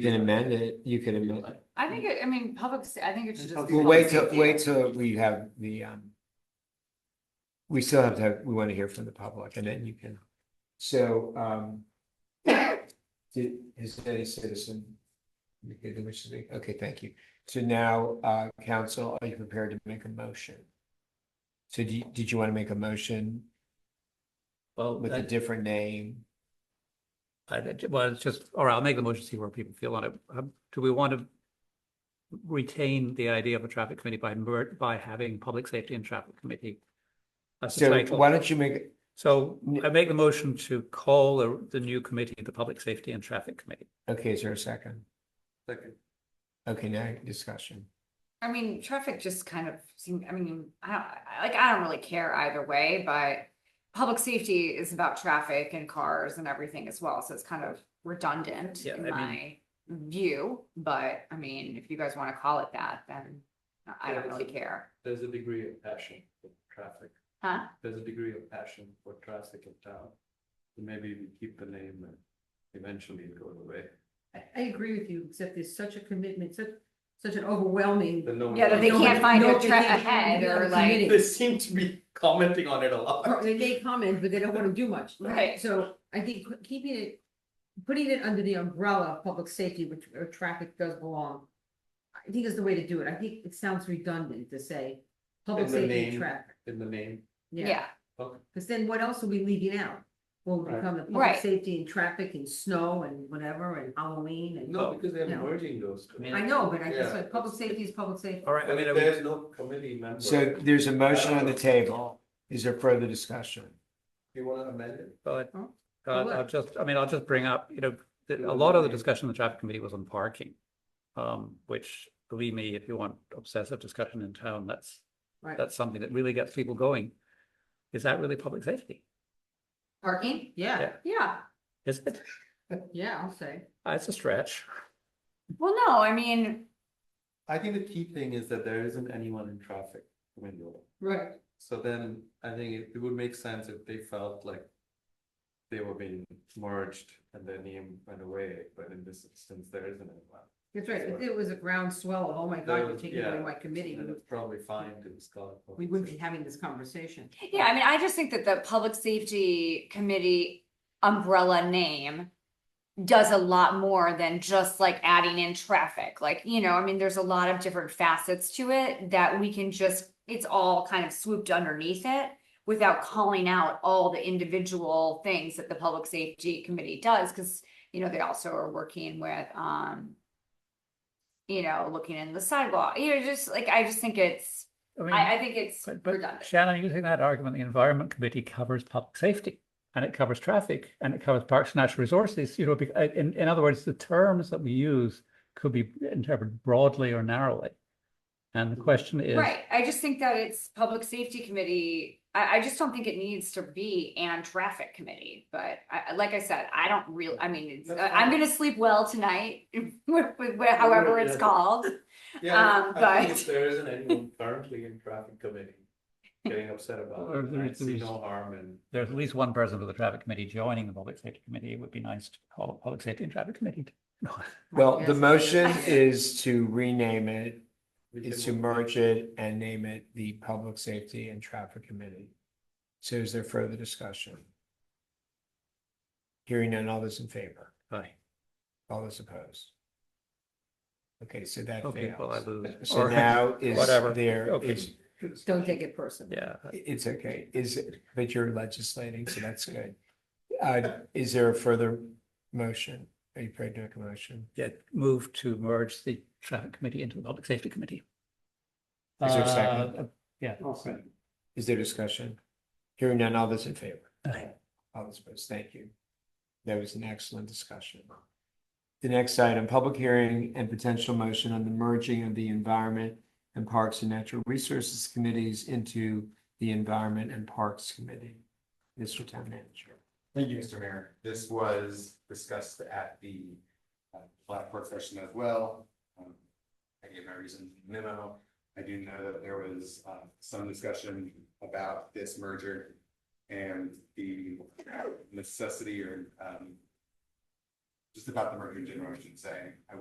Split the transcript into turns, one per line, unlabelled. You can amend it, you can amend. it.
I think, it- I mean, public, sa- I think it should just. be
We'll wait
public
till,
safety.
wait till we have the, um. We still have to have, we want to hear from the public and then you can, so, um. Did, has any citizen? indicated they wish to speak? Okay, thank you. So now, uh, council, are you prepared to make a motion? So do you, did you want to make a motion
Well,
with a
that-
different name?
I- that- well, it's just, all right, I'll make the motion, see where people feel on it. Um, Do we want to retain the idea of a traffic committee by mer, by having public safety and traffic committee? That's the
So why
title.
don't you make,
So I make the motion to call the, the new committee, the Public Safety and Traffic Committee.
okay, is there a second? Okay, now discussion.
I mean, traffic just kind of seemed, I mean, I don't, I- like, I don't really care either way, but public safety is about traffic and cars and everything as well, so it's kind of redundant
Yeah,
in
I
my view, but I mean, if you guys want to call it that, then I
Yeah,
don't
it's
really
a-
care.
There's a degree of passion for traffic.
Huh?
There's a degree of passion for traffic in town. So Maybe we keep the name and eventually it goes away.
I, I agree with you, except there's such a commitment, such, such an overwhelming.
The no-
Yeah, that they
No,
can't find
no,
a
they
tra-
can't
ahead
find
or
a
like,
committee.
They seem to be commenting on it a lot.
They may comment, but they don't wanna do much.
Right.
So I think keeping it, putting it under the umbrella of public safety, which, or traffic does belong. I think is the way to do it. I think it sounds redundant to say public
In the
safety and
name.
traffic.
In the name.
yeah,
Okay.
Cause then what else are we leaving out? Will
Right.
become the public
Right.
safety and traffic and snow and whatever and Halloween and.
No, because they're
No.
merging those. two.
I know, but I
Yeah.
just, like, public safety is public safety.
All right, I
But
mean, are we-
There's no committee member.
So there's a motion on the table. Is there further discussion?
You wanna amend it?
but
Oh,
uh,
what?
I'll just, I mean, I'll just bring up, you know, that
Yeah,
a lot of the
okay.
discussion in the traffic committee was on parking. Um, which, believe me, if you want obsessive discussion in town, that's
Right,
that's something that really gets people going. Is that really public safety?
parking,
yeah,
yeah.
Is it?
yeah, I'll say.
Uh, It's a stretch.
Well, no, I mean,
I think the key thing is that there isn't anyone in traffic window.
Right.
So then I think it it would make sense if they felt like they were being merged and their name went away, but in this instance, there isn't anyone.
That's right, if it was a groundswell of, oh my
There
God, you're
was-
taking away
yeah,
my committee,
And
we-
it's probably fine to discuss.
we wouldn't be having this conversation.
Yeah, I mean, I just think that the Public Safety Committee umbrella name does a lot more than just like adding in traffic. Like, you know, I mean, there's a lot of different facets to it that we can just, it's all kind of swooped underneath it without calling out all the individual things that the Public Safety Committee does, because, you know, they also are working with, um, you know, looking in the sidewalk, you know, just like, I just think it's,
I mean,
I, I think it's
but-
redundant.
but Shannon, using that argument, the environment committee covers public safety. And it covers traffic and it covers parks and natural resources, you know, bec- uh, in, in other words, the terms that we use could be interpreted broadly or narrowly. And the question is,
Right, I just think that it's public safety committee, I, I just don't think it needs to be and traffic committee, but I, I- like I said, I don't real, I mean, it's-
That's
I- I'm
fine.
gonna sleep well tonight, with, with, however it's
Yeah.
called.
Yeah,
Um,
I think
but-
if there isn't anyone currently in traffic committee getting upset about
Or
it, I
there-
see
there's-
no harm in.
there's at least one person for the traffic committee joining the public safety committee. It would be nice to call it public safety and traffic committee.
Well, the
Yes.
motion is to rename it,
we
is to
can-
merge it and name it the Public Safety and Traffic Committee. So is there further discussion? Hearing none, all those in favor,
Aye.
all those opposed? Okay, so that
Okay, well, I
fails.
lose.
So
Or-
now is
whatever.
there,
Okay.
is,
Don't take it personally.
Yeah,
it's okay, is, but you're legislating, so that's good. Uh, is there a further motion? Are you prepared to make a motion?
yeah, move to merge the traffic committee into the public safety committee.
Is there a second?
Uh, Yeah.
Is there discussion? Hearing none, all those in favor?
Aye.
All those opposed, thank you. That was an excellent discussion. The next item, public hearing and potential motion on the merging of the Environment and Parks and Natural Resources Committees into the Environment and Parks Committee. Mr. Town Manager.
Thank you, Mr. Mayor. This was discussed at the uh, Blackboard session as well. Um, I gave my reason in the memo. I do know that there was uh, some discussion about this merger and the necessity or um,
just about the merger generation saying, I